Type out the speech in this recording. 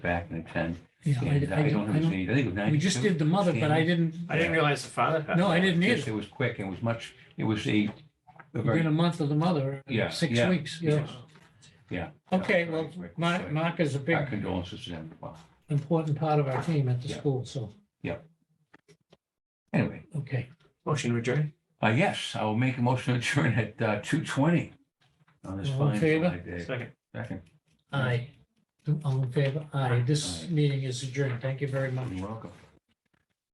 back in the ten. Yeah, I, I And I don't don't, know if I it's don't, any, I think it was ninety-two. we just did the mother, but I didn't, I didn't realize the father. had no, I that. didn't Yes, It either. was quick. It was much, it was a, a very Within a month of the mother, Yeah, six yeah, weeks, yeah. yeah. Okay, well, Mark, Mark is a Our big, condolences to them. Well, important part of our team at the Yeah. school, so, Anyway, okay. Motion to adjourn. uh, yes, I will make a motion to adjourn at, uh, two twenty on this All in fine favor? July day. Second. Second, Aye. All in favor? Aye. This meeting is adjourned. Thank you very much. you're welcome.